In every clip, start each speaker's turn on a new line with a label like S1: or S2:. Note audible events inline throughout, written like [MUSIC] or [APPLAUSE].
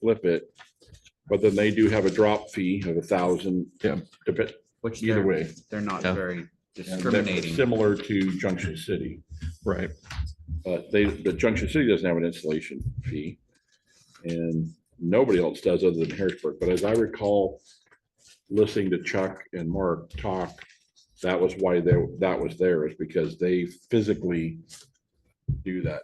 S1: flip it. But then they do have a drop fee of a thousand.
S2: Yeah.
S3: Which
S1: Either
S3: they're,
S1: way.
S3: they're not
S2: Yeah.
S3: very
S1: And that's
S3: discriminating.
S1: Similar to Junction City,
S2: Right.
S1: but they, the Junction City doesn't have an installation fee. And nobody else does other than Harrisburg. But as I recall, listening to Chuck and Mark talk, that was why they, that was there is because they physically do that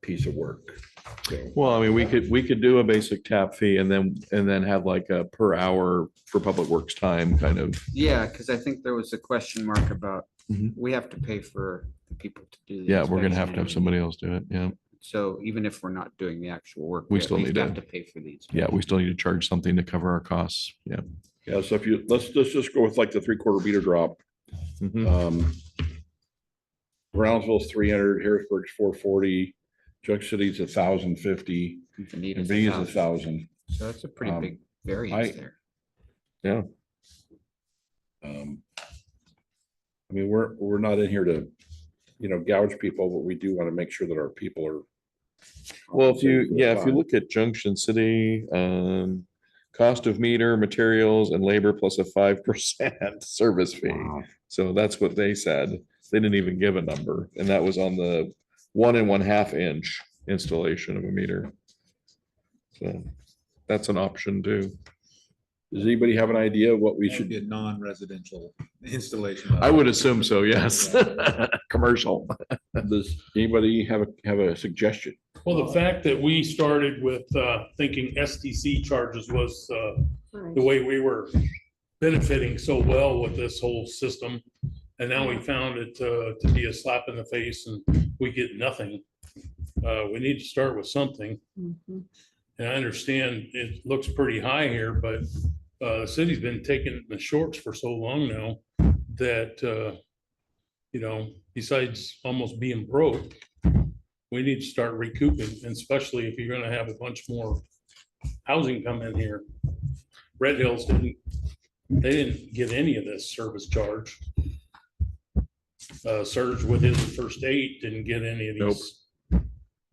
S1: piece of work. So,
S2: Well, I mean, we could, we could do a basic tap fee and then, and then have like a per hour for public works time kind of.
S3: Yeah, because I think there was a question mark about,
S2: Mhm.
S3: we have to pay for the people to do. the
S2: Yeah, we're gonna have to
S3: inspection
S2: have somebody else do it. Yeah.
S3: and- So even if we're not doing the actual work.
S2: We
S3: at
S2: still
S3: least
S2: need to-
S3: Have to pay for these.
S2: Yeah, we still need to charge something to cover our costs. Yeah.
S1: Yeah, so if you, let's, let's just go with like the three quarter meter drop. Um Brownsville's three hundred, Harrisburg's four forty, Junction City's a thousand fifty, and B is a
S3: So
S1: thousand.
S3: that's a pretty
S1: Um,
S3: big variance
S1: I-
S3: there.
S1: Um I mean, we're, we're not in here to, you know, gouge people, but we do want to make sure that our people are.
S2: Well, if you,
S1: compensated for their
S2: yeah, if you
S1: time.
S2: look at Junction City, um, cost of meter, materials and labor plus a five percent [LAUGHS] service fee.
S1: Wow.
S2: So that's what they said. They didn't even give a number and that was on the one and one half inch installation of a meter. So that's an option too.
S1: Does anybody have an idea what we
S4: We should
S1: should,
S4: be a non-residential installation.
S2: I would assume so, yes. [LAUGHS] Commercial.
S1: does anybody have, a have a suggestion?
S5: Well, the fact that we started with uh, thinking STC charges was uh, the way we were benefiting so well with this whole system. And now we found it uh, to be a slap in the face and we get nothing. Uh, We need to start with something.
S6: Mhm.
S5: And I understand it looks pretty high here, but uh, the city's been taking the shorts for so long now that, uh, you know, besides almost being broke, we need to start recouping, and especially if you're gonna have a bunch more housing come in here. Red Hills didn't, they didn't get any of this service charge. Uh, Serge with his first eight didn't get any of these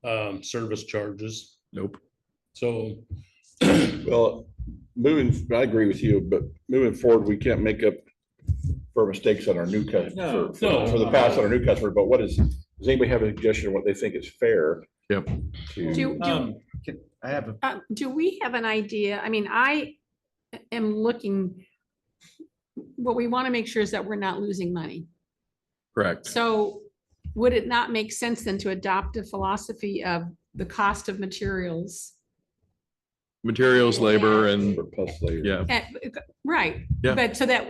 S5: um, service charges.
S2: Nope.
S5: So
S1: Well, moving, I agree with you, but moving forward, we can't make up for mistakes on our new customer,
S4: No. uh,
S1: for for the past on our new customer, but what is, does anybody have a suggestion of what they think is fair?
S2: Yep.
S1: to-
S6: Do, do,
S4: Um, can- I have a
S6: uh, do we have an idea? I mean, I am looking. What we want to make sure is that we're not losing money.
S2: Correct.
S6: So would it not make sense then to adopt a philosophy of the cost of materials?
S2: Materials, labor and,
S1: for plus later.
S2: yeah,
S6: Eh, Right.
S2: Yeah.
S6: But so that,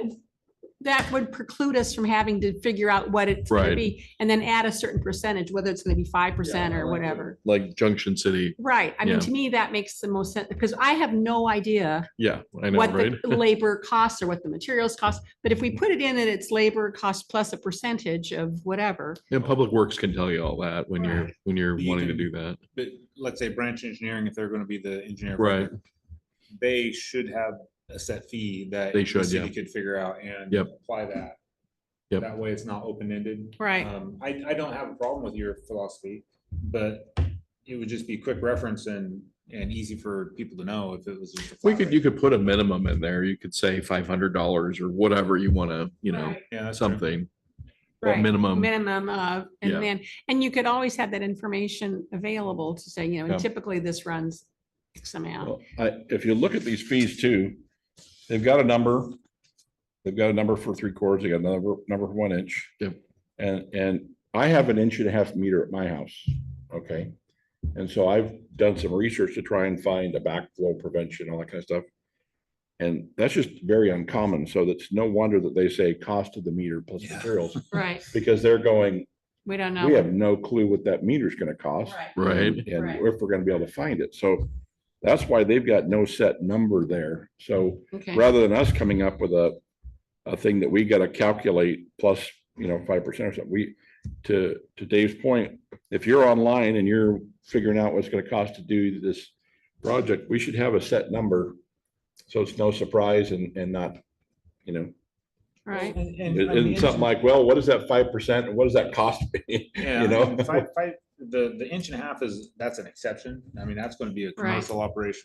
S6: that would preclude us from having to figure out what it's going to
S2: Right.
S6: be and then add a certain percentage, whether it's going to be five percent
S4: Yeah, I
S6: or
S4: like that.
S6: whatever.
S2: like Junction City.
S6: Right. I
S2: Yeah.
S6: mean, to me, that makes the most sense because I have no idea
S2: Yeah, I know,
S6: what
S2: right?
S6: the
S2: [LAUGHS]
S6: labor costs or what the materials cost. But if we put it in and it's labor cost plus a percentage of whatever,
S2: And Public Works can tell you all that when you're, when you're
S4: You
S2: wanting to
S4: can-
S2: do that.
S4: bit, let's say branch engineering, if they're gonna be the engineer. of
S2: Right.
S4: record, They should have a set fee that.
S2: They
S4: the
S2: should,
S4: city
S2: yeah.
S4: Could figure out and.
S2: Yep.
S4: Apply that.
S2: Yep.
S4: That way it's not open-ended.
S6: Right.
S2: uh,
S4: Um, I, I don't have a problem with your philosophy, but it would just be quick reference and, and easy for people to know if it was. just a
S2: We
S4: flat
S2: could,
S4: rate.
S2: you could put a minimum in there. You could say five hundred dollars or whatever you want to, you know,
S6: Right.
S4: Yeah, that's true.
S2: something. or
S6: right,
S2: Minimum.
S6: minimum of,
S2: Yeah.
S6: and then, and you could always have that information available to say, you know,
S2: Yeah.
S6: and typically this runs X amount.
S1: Well, I, if you look at these fees too, they've got a number. They've got a number for three quarters, they got another number for one inch.
S2: Yep.
S1: And, and I have an inch and a half meter at my house, okay? And so I've done some research to try and find a backflow prevention, all that kind of stuff. And that's just very uncommon, so that's no wonder that they say cost of the meter plus
S4: Yeah.
S1: materials,
S6: Right.
S1: because they're going,
S6: We don't
S1: we
S6: know.
S1: have no clue what that meter's gonna cost
S2: Right.
S1: [LAUGHS] and
S6: Right.
S1: if we're gonna be able to find it. So that's why they've got no set number there. So
S6: Okay.
S1: rather than us coming up with a, a thing that we gotta calculate plus, you know, five percent or something, we, to, to Dave's point, if you're online and you're figuring out what's gonna cost to do this project, we should have a set number. So it's no surprise and, and not, you know,
S6: Right.
S4: And- and-
S1: it-
S4: I mean,
S1: it's something like, well, what is that five percent? and What does that cost? me? [LAUGHS]
S4: Yeah,
S1: you
S4: you
S1: know?
S4: know, five, five, the, the inch and a half is, that's an exception. I mean, that's gonna be a commercial operation.